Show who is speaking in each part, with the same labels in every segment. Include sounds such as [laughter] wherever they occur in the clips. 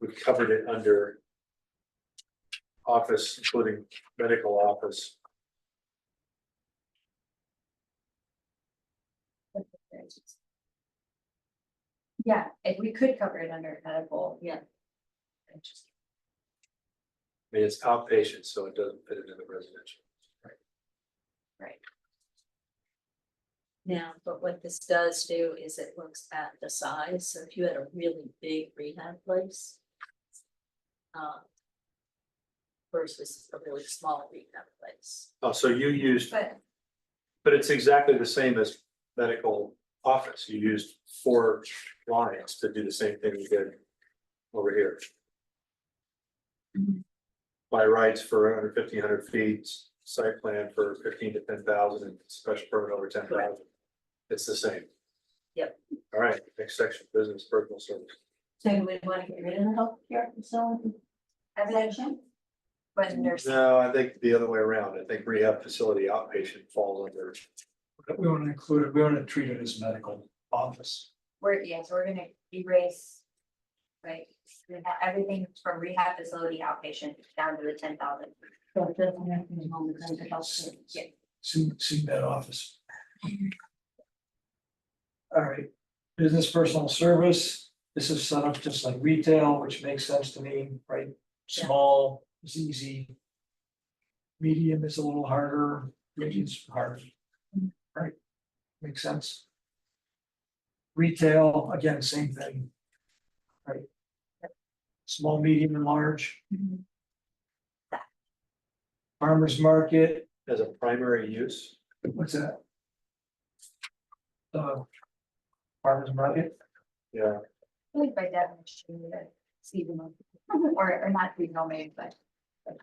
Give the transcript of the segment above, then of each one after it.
Speaker 1: we covered it under. Office, including medical office,
Speaker 2: Yeah, if we could cover it under medical, yeah. And just-
Speaker 1: I mean, it's outpatient, so it doesn't fit into the residential.
Speaker 3: Now, but what this does do is it looks at the size, so if you had a really big rehab place. uh, Versus a really small rehab place.
Speaker 1: Oh, so you used,
Speaker 2: But
Speaker 1: but it's exactly the same as medical office, you used four lines to do the same thing you did over here.
Speaker 2: Mhm.
Speaker 1: By rights for under fifteen hundred feet, site plan for fifteen to ten thousand, and special permit over ten thousand. It's the same.
Speaker 3: Yep.
Speaker 1: All right, next section, business personal service.
Speaker 3: So do we want to get rid of the healthcare facility?
Speaker 2: evidential, but nursing,
Speaker 1: No, I think the other way around. I think rehab facility outpatient falls under,
Speaker 4: But we want to include it, we want to treat it as medical office.
Speaker 2: we're, yes, we're gonna erase. Right, we have everything from rehab facility outpatient down to the ten thousand.
Speaker 3: That doesn't have to be home, it's under healthcare.
Speaker 2: Yeah.
Speaker 4: See, see that office. All right, business personal service, this is set up just like retail, which makes sense to me, right?
Speaker 3: Yeah.
Speaker 4: Small is easy. Medium is a little harder, big is hard, right? Makes sense. Retail, again, same thing. Right? Small, medium and large.
Speaker 3: Mhm.
Speaker 4: Farmers market,
Speaker 1: as a primary use.
Speaker 4: What's that? Uh. Farmers market,
Speaker 1: Yeah,
Speaker 2: I think by definition, the seasonal, [laughs] or, or not seasonal maybe, but.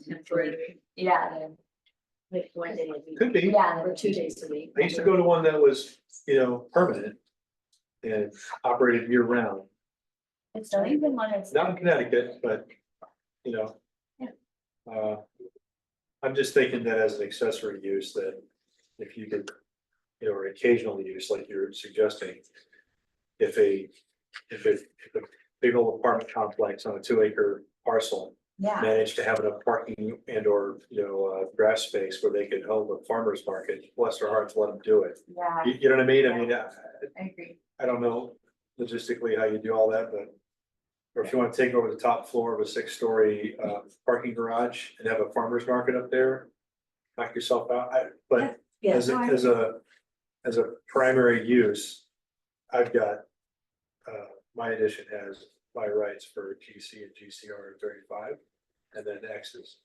Speaker 3: Temporary,
Speaker 2: Yeah, the-
Speaker 3: like one day a week,
Speaker 1: could be.
Speaker 2: yeah,
Speaker 3: or
Speaker 2: the-
Speaker 3: two days a week.
Speaker 1: I used to go to one that was, you know, permanent and operated year round,
Speaker 2: it's not even one that's.
Speaker 1: not in Connecticut, but, you know.
Speaker 2: Yeah.
Speaker 1: Uh, I'm just thinking that as an accessory use that if you could, you know, or occasional use like you're suggesting. If a, if a, if a big old apartment complex on a two acre parcel
Speaker 2: Yeah.
Speaker 1: managed to have enough parking and or, you know, uh, grass space where they could hold a farmer's market, bless their hearts, let them do it.
Speaker 2: Yeah,
Speaker 1: You, you know what I mean? I mean, I,
Speaker 2: I agree.
Speaker 1: I don't know logistically how you do all that, but. Or if you want to take over the top floor of a six-story, uh, parking garage and have a farmer's market up there. Knock yourself out, I, but
Speaker 3: Yeah,
Speaker 1: as a,
Speaker 2: no, I
Speaker 1: as a, as a primary use, I've got. Uh, my addition has my rights for GC and GCR thirty-five, and then X's.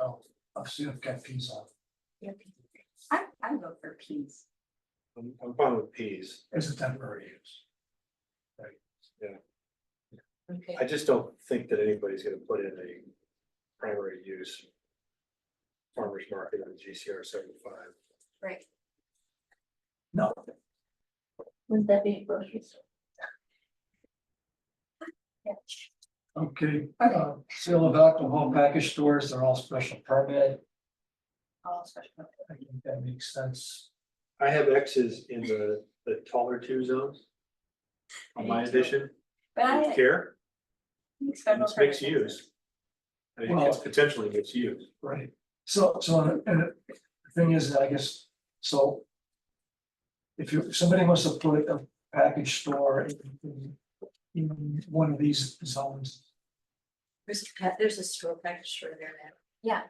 Speaker 4: oh, I've seen, I've got peas on,
Speaker 2: I, I go for peas.
Speaker 1: I'm, I'm fine with Ps,
Speaker 4: as a temporary use.
Speaker 3: okay,
Speaker 1: I just don't think that anybody's gonna put in a primary use. Farmer's market on GCR seventy-five.
Speaker 2: Right.
Speaker 4: No,
Speaker 3: wouldn't that be a grocery store?
Speaker 2: Yeah.
Speaker 4: okay, uh, sale of alcohol package stores, they're all special permit,
Speaker 2: All special.
Speaker 4: I think that makes sense.
Speaker 1: I have X's in the, the taller two zones. On my addition,
Speaker 2: But I
Speaker 1: don't
Speaker 2: think
Speaker 1: care,
Speaker 2: special
Speaker 1: it's mixed
Speaker 2: purposes.
Speaker 1: use. I mean, it's
Speaker 4: Well-
Speaker 1: potentially mixed use.
Speaker 4: Right, so, so, and the thing is, I guess, so. If you, if somebody wants to put a package store in- in, in one of these zones,
Speaker 3: There's, a pa- there's a store package store there now.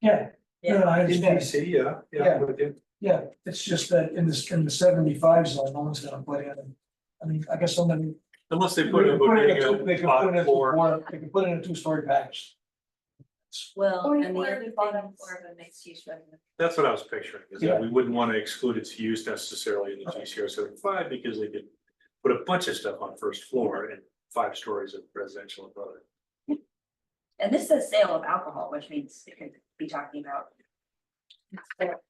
Speaker 4: yeah. no, I
Speaker 1: In DC,
Speaker 4: understand.
Speaker 1: yeah, yeah,
Speaker 4: Yeah.
Speaker 1: with you.
Speaker 4: Yeah, it's just that in this, in the seventy-five zone, no one's gonna put in, I mean, I guess somebody.
Speaker 1: Unless
Speaker 4: They
Speaker 1: they put
Speaker 4: could put
Speaker 1: a
Speaker 4: in a uh,
Speaker 1: bodega
Speaker 4: two- they could put in
Speaker 1: on
Speaker 4: a
Speaker 1: floor.
Speaker 4: two- they could put in a two-story package.
Speaker 3: Well,
Speaker 2: Or-
Speaker 3: and the
Speaker 2: or
Speaker 3: other
Speaker 2: the
Speaker 3: thing,
Speaker 2: bottom
Speaker 3: is-
Speaker 2: floor
Speaker 3: of a mixed use residence.
Speaker 1: That's what I was picturing, is that
Speaker 4: Yeah.
Speaker 1: we wouldn't want to exclude its use necessarily in the GCR seventy-five because they could. Put a bunch of stuff on first floor and five stories of residential above it.
Speaker 2: And this says sale of alcohol, which means it could be talking about.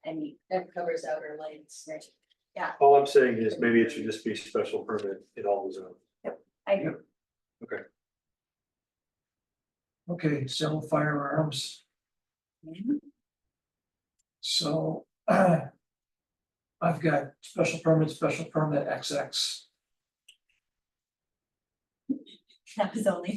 Speaker 2: Any,
Speaker 3: That covers outer lanes.
Speaker 2: Right.
Speaker 1: All I'm saying is maybe it should just be special permit in all the zones.
Speaker 2: I agree.
Speaker 4: Okay, sell firearms, so. [clears throat] uh, I've got special permit, special permit XX.
Speaker 2: [laughs] that was only